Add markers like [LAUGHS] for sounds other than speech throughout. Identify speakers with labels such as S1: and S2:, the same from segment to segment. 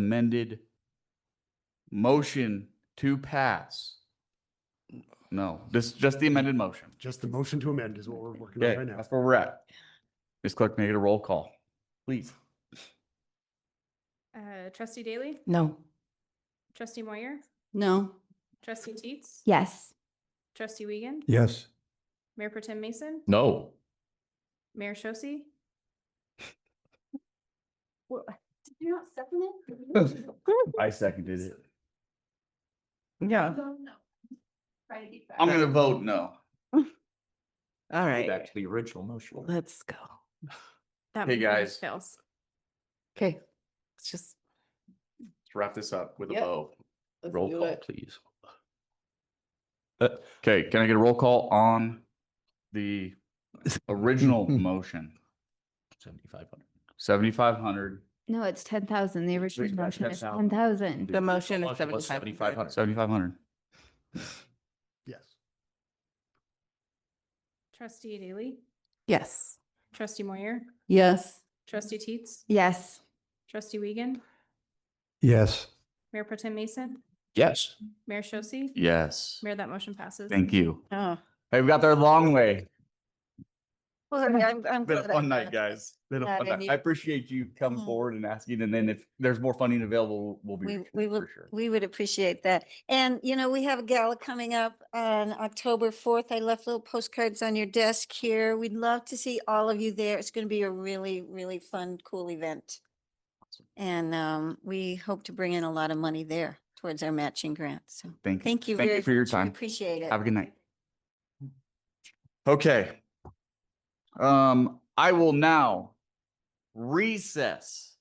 S1: amended motion to pass. No, this, just the amended motion.
S2: Just the motion to amend is what we're working on
S1: Okay,
S2: right now.
S1: that's where we're at. Ms. Clerk, make it a roll call, please.
S3: Uh, trustee Daly,
S4: No.
S3: trustee Moyer,
S4: No.
S3: trustee Teets.
S4: Yes.
S3: Trustee Wiegand,
S5: Yes.
S3: Mayor Pro Tem Mason,
S5: No.
S3: Mayor Shosse,
S4: Did you not second
S1: it? [LAUGHS] I seconded it.
S4: Yeah.
S1: I'm gonna vote no.
S4: All right,
S5: the original motion.
S4: let's go.
S3: that
S1: Hey,
S3: motion
S1: guys.
S3: fails.
S4: Okay, let's just.
S1: Let's Wrap this up with a
S4: Yep.
S1: bow.
S4: let's
S5: Roll
S4: do
S5: call,
S4: it.
S5: please. Uh,
S1: Okay, can I get a roll call on the original motion?
S5: Seventy-five hundred.
S1: Seventy-five hundred,
S6: No, it's ten thousand. The
S1: Please,
S6: original
S1: that's
S6: motion is
S1: 10,000.
S6: ten thousand.
S4: The motion is
S5: Motion was
S4: seventy-five hundred.
S5: 7,500.
S1: seventy-five hundred.
S2: Yes.
S3: Trustee Daly,
S4: Yes.
S3: trustee Moyer,
S4: Yes.
S3: trustee Teets,
S6: Yes,
S3: trustee Wiegand,
S5: Yes.
S3: Mayor Pro Tem Mason,
S5: Yes.
S3: Mayor Shosse,
S1: Yes,
S3: Mayor, that motion passes.
S1: thank you.
S4: Oh.
S1: Hey, we got there a long way. [LAUGHS]
S4: Well, I'm, I'm.
S1: Been a
S4: glad I
S1: fun
S7: [LAUGHS]
S1: night,
S4: asked.
S1: guys. Been a
S4: Yeah,
S1: fun
S4: they
S1: night.
S4: need-
S1: I appreciate you coming
S4: Mhm.
S1: forward and asking, and then if there's more funding available, we'll be.
S7: Mm-hmm. We,
S1: reaching
S7: we
S1: out
S7: would,
S1: for sure.
S7: we would appreciate that. And, you know, we have a gala coming up on October fourth. I left little postcards on your desk here. We'd love to see all of you there. It's gonna be a really, really fun, cool event. And, um, we hope to bring in a lot of money there towards our matching grant. So
S1: Thank you.
S7: thank you
S1: Thank
S7: very
S1: you for your
S7: much. We
S1: time.
S7: Appreciate it.
S1: Have a good night. Okay. Um, I will now recess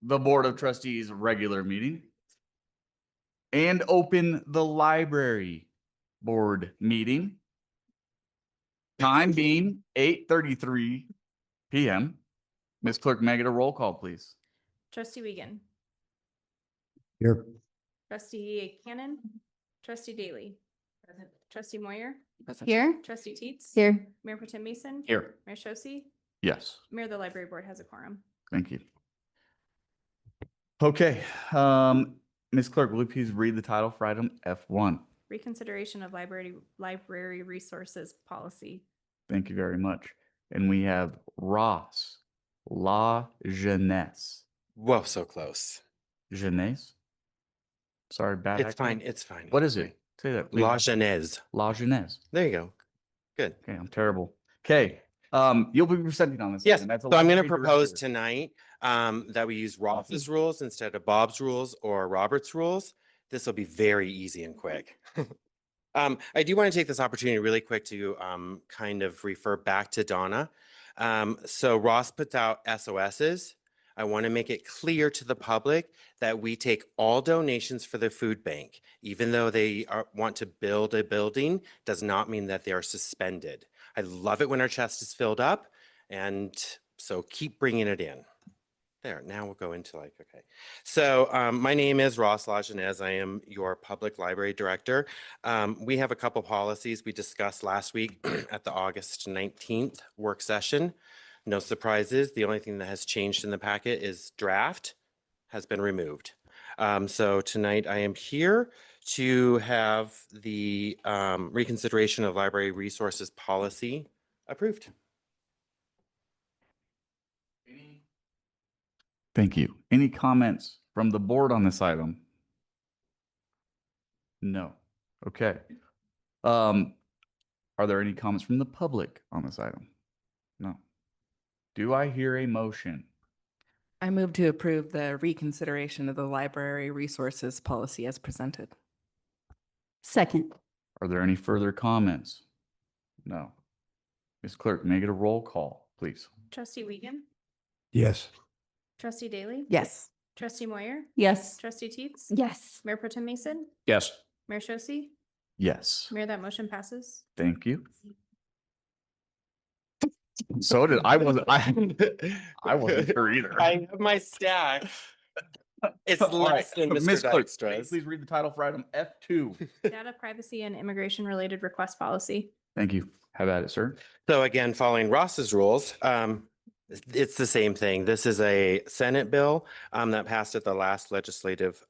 S1: the Board of Trustees regular meeting and open the library board meeting. Time being eight thirty-three PM. Ms. Clerk, make it a roll call, please.
S3: Trustee Wiegand,
S5: Here.
S3: trustee Cannon, trustee Daly, trustee Moyer,
S6: here,
S3: trustee Teets.
S6: here.
S3: Mayor Pro Tem Mason.
S1: Here.
S3: Mayor Shosse,
S1: Yes.
S3: Mayor, the library board has a quorum.
S1: Thank you. Okay, um, Ms. Clerk, will you please read the title for item F one?
S3: Reconsideration of library, library resources policy.
S1: Thank you very much. And we have Ross, La Jeunesse,
S8: Whoa, so close.
S1: Jeunesse? Sorry, bad.
S8: It's
S1: accent.
S8: fine. It's fine.
S1: What
S8: it's
S1: is it? Say that.
S8: fine. La
S1: please.
S8: Genèse.
S1: La Jeunesse.
S8: There you go. Good.
S1: Okay, I'm terrible. Okay, um, you'll be presenting on this.
S8: Yes,
S1: item. That's a
S8: So I'm
S1: lot
S8: going to
S1: bigger Mm-hmm.
S8: propose
S1: record.
S8: tonight um, that we use Ross's rules instead of Bob's rules or Robert's rules. This will be very easy and quick. [LAUGHS] Um, I do want to take this opportunity really quick to um, kind of refer back to Donna. Um, So Ross puts out SOSs. I want to make it clear to the public that we take all donations for the food bank. Even though they are, want to build a building, does not mean that they are suspended. I love it when our chest is filled up. And so keep bringing it in. There, now we'll go into like, okay. So um, my name is Ross Lajeunesse. I am your public library director. Um, we have a couple policies we discussed last week [CLEARS THROAT] at the August 19th work session. No surprises. The only thing that has changed in the packet is draft has been removed. Um, so tonight I am here to have the um, reconsideration of library resources policy approved.
S1: Thank you. Any comments from the board on this item? No. Okay. Um, are there any comments from the public on this item? No. Do I hear a motion?
S4: I move to approve the reconsideration of the library resources policy as presented.
S6: Second.
S1: Are there any further comments? No. Ms. Clerk, make it a roll call, please.
S3: Trustee Wiegand,
S5: Yes.
S3: trustee Daly.
S4: Yes.
S3: Trustee Moyer,
S4: Yes.
S3: trustee Teets.
S6: Yes.
S3: Mayor Pro Tem Mason,
S5: Yes.
S3: Mayor Shosse,
S1: Yes,
S3: Mayor, that motion passes.
S1: thank you. So did, I wasn't, I, [LAUGHS] I wasn't sure either. [LAUGHS]
S8: I have my stack. It's
S1: All right,
S8: less
S1: [LAUGHS]
S8: than
S1: Ms.
S8: Mr.
S1: Clerk, may you
S8: Dykstra's.
S1: Please read the title for item F [LAUGHS] two.
S3: Data privacy and immigration related request policy.
S1: Thank you. Have at it, sir.
S8: So again, following Ross's rules, um, It's the same thing. This is a Senate bill um, that passed at the last legislative